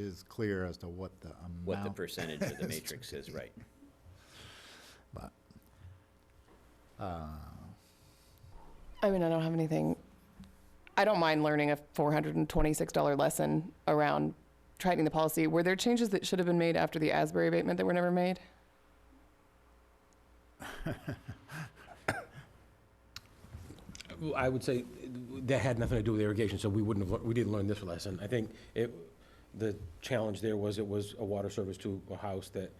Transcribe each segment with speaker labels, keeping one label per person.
Speaker 1: is clear as to what the
Speaker 2: what the
Speaker 1: amount,
Speaker 2: percentage of the matrix is, right?
Speaker 1: but, uh,
Speaker 3: I mean, I don't have anything. I don't mind learning a $426 lesson around tightening the policy. Were there changes that should have been made after the Asbury abatement that were never made?
Speaker 4: Well, I would say that had nothing to do with irrigation, so we wouldn't have, lear- we didn't learn this lesson. I think it, the challenge there was it was a water service to a house that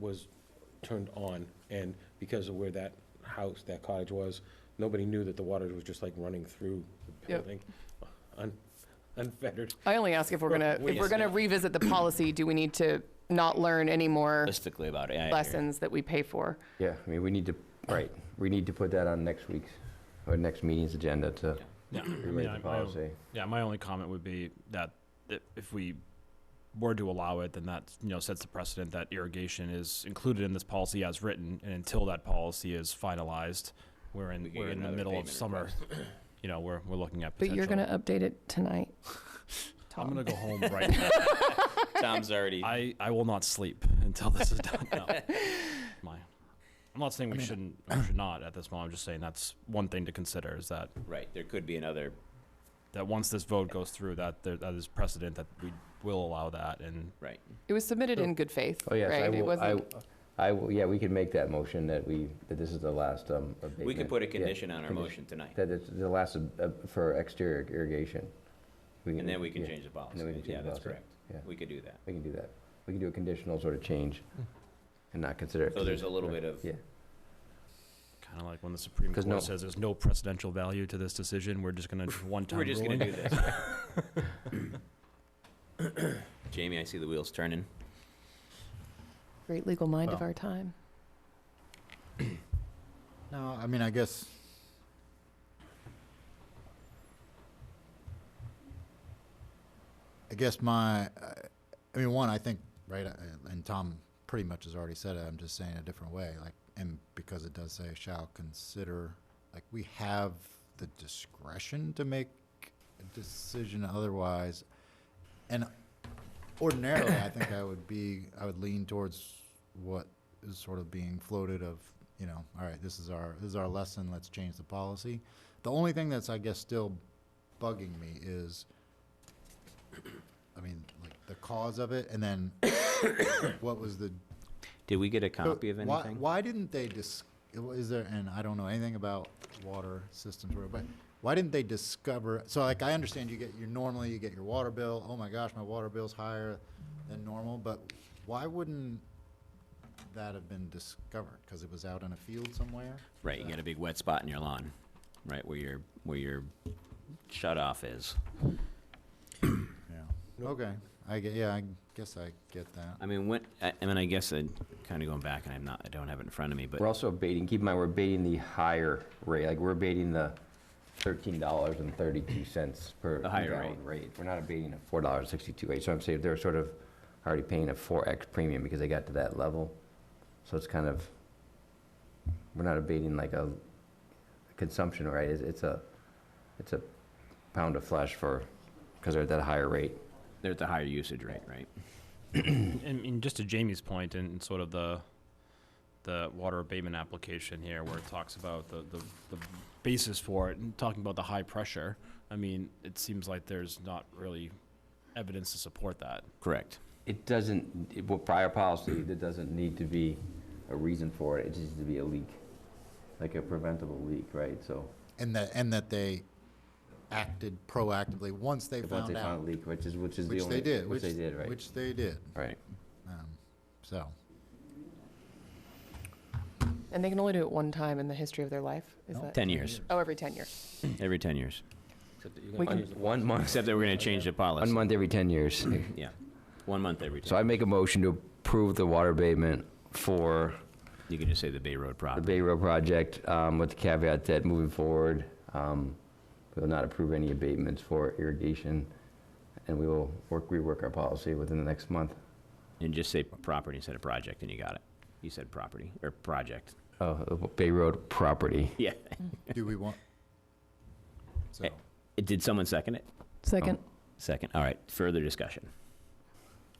Speaker 4: was turned on, and because of where that house, that cottage was, nobody knew that the water was just like running through the
Speaker 3: Yep.
Speaker 4: building, un- unfettered.
Speaker 3: I only ask if we're gonna, if we're gonna revisit the policy, do we need to not learn any more
Speaker 2: Realistically about it. I hear you.
Speaker 3: lessons that we pay for?
Speaker 5: Yeah, I mean, we need to, right, we need to put that on next week's, or next meeting's agenda to
Speaker 6: Yeah, I mean,
Speaker 5: rewrite
Speaker 6: I-
Speaker 5: the
Speaker 6: my own-
Speaker 5: policy.
Speaker 6: Yeah, my only comment would be that i- if we were to allow it, then that, you know, sets the precedent that irrigation is included in this policy as written, and until that policy is finalized, we're
Speaker 2: We
Speaker 6: in,
Speaker 2: could
Speaker 6: we're
Speaker 2: get
Speaker 6: in the
Speaker 2: another
Speaker 6: middle of
Speaker 2: payment
Speaker 6: summer. You know, we're, we're looking at
Speaker 3: But
Speaker 6: potential.
Speaker 3: you're gonna update it tonight,
Speaker 6: I'm
Speaker 3: Tom.
Speaker 6: gonna go home right now.
Speaker 2: Tom's already,
Speaker 6: I, I will not sleep until this is done. No. My, I'm not saying we shouldn't, we should not at this moment. I'm just saying that's one thing to consider is that
Speaker 2: right, there could be another,
Speaker 6: that once this vote goes through, that there, that is precedent that we will allow that, and
Speaker 2: right.
Speaker 3: It was submitted in good faith,
Speaker 5: Oh, yes, I
Speaker 3: right? It
Speaker 5: will, I,
Speaker 3: wasn't,
Speaker 5: I will, yeah, we can make that motion that we, that this is the last, um, abatement.
Speaker 2: We could put a
Speaker 5: Yeah,
Speaker 2: condition on our
Speaker 5: condi-
Speaker 2: motion tonight,
Speaker 5: That it's the last, ab- ab- for exterior irrigation.
Speaker 2: and then we can
Speaker 5: yeah,
Speaker 2: change the policy.
Speaker 5: and then we can
Speaker 2: Yeah,
Speaker 5: change the
Speaker 2: that's
Speaker 5: policy.
Speaker 2: correct.
Speaker 5: Yeah.
Speaker 2: We could do that.
Speaker 5: We can do that. We can do a conditional sort of change and not consider it.
Speaker 2: Hmm. So there's a little bit of,
Speaker 5: Yeah,
Speaker 6: kind of like when the Supreme
Speaker 5: 'Cause
Speaker 6: Court
Speaker 5: no-
Speaker 6: says there's no precedential value to this decision, we're just gonna one time
Speaker 2: we're just gonna
Speaker 6: ruling.
Speaker 2: do this. Jamie, I see the wheels turning.
Speaker 3: great legal
Speaker 5: Oh.
Speaker 3: mind of
Speaker 1: Well.
Speaker 3: our time.
Speaker 1: no, I mean, I guess. I guess my, I- I mean, one, I think, right, I- and Tom pretty much has already said it, I'm just saying it a different way, like, and because it does say shall consider, like, we have the discretion to make a decision otherwise. And ordinarily, I think I would be, I would lean towards what is sort of being floated of, you know, all right, this is our, this is our lesson, let's change the policy. The only thing that's, I guess, still bugging me is, I mean, like, the cause of it, and then what was the
Speaker 2: Did we get a
Speaker 1: so
Speaker 2: copy of
Speaker 1: why-
Speaker 2: anything?
Speaker 1: Why didn't they dis, is there, and I don't know anything about water systems, or- but why didn't they discover, so like, I understand you get, your normally you get your water bill, oh my gosh, my water bill's higher than normal, but why wouldn't that have been discovered? Cause it was out in a field somewhere?
Speaker 2: Right, you got a big wet spot in your lawn, right, where your, where your shut off is.
Speaker 1: Yeah, okay, I get, yeah, I guess I get that.
Speaker 2: I mean, what, I, I mean, I guess I, kind of going back, and I'm not, I don't have it in front of me, but.
Speaker 5: we're also abating, keep in mind, we're abating the higher rate, like, we're abating the thirteen dollars and thirty-two cents per
Speaker 2: The higher
Speaker 5: gallon rate. We're not abating a four dollars sixty-two rate, so I'm saying they're sort of already paying a four X premium because they got to that level. So it's kind of, we're not abating like a consumption rate, it's, it's a, it's a pound of flesh for, because they're at that higher rate.
Speaker 2: They're at the higher usage rate, right?
Speaker 6: And, and just to Jamie's point, and and sort of the the water abatement application here, where it talks about the, the, the basis for it, and talking about the high pressure, I mean, it seems like there's not really evidence to support that.
Speaker 2: Correct.
Speaker 5: It doesn't, it- well, prior policy, there doesn't need to be a reason for it, it just needs to be a leak, like a preventable leak, right? So,
Speaker 1: And that, and that they acted proactively once they
Speaker 5: once
Speaker 1: found
Speaker 5: they found a
Speaker 1: out,
Speaker 5: leak, which is, which is the
Speaker 1: which
Speaker 5: only.
Speaker 1: they did, which,
Speaker 5: Which they did, right?
Speaker 1: which they did,
Speaker 5: Right.
Speaker 1: um, so.
Speaker 3: And they can only do it one time in the history of their life, is
Speaker 1: No.
Speaker 3: that?
Speaker 2: Ten years,
Speaker 3: Oh, every 10 years.
Speaker 2: every ten years.
Speaker 3: We can-
Speaker 5: One month,
Speaker 2: Except that we're gonna change the
Speaker 5: one
Speaker 2: policy.
Speaker 5: month every 10 years.
Speaker 2: Yeah, one month every
Speaker 5: So
Speaker 2: ten.
Speaker 5: I make a motion to approve the water abatement for
Speaker 2: You can just say the Bay Road
Speaker 5: the
Speaker 2: problem.
Speaker 5: Bay Road project um, with the caveat that moving forward, um, we will not approve any abatements for irrigation, and we will work, rework our policy within the next month.
Speaker 2: And just say property instead of project, and you got it. You said property, or project.
Speaker 5: Oh, the Bay Road property.
Speaker 2: Yeah.
Speaker 1: Do we want? So,
Speaker 2: Did someone second it?
Speaker 3: Second.
Speaker 2: Second, all right, further discussion.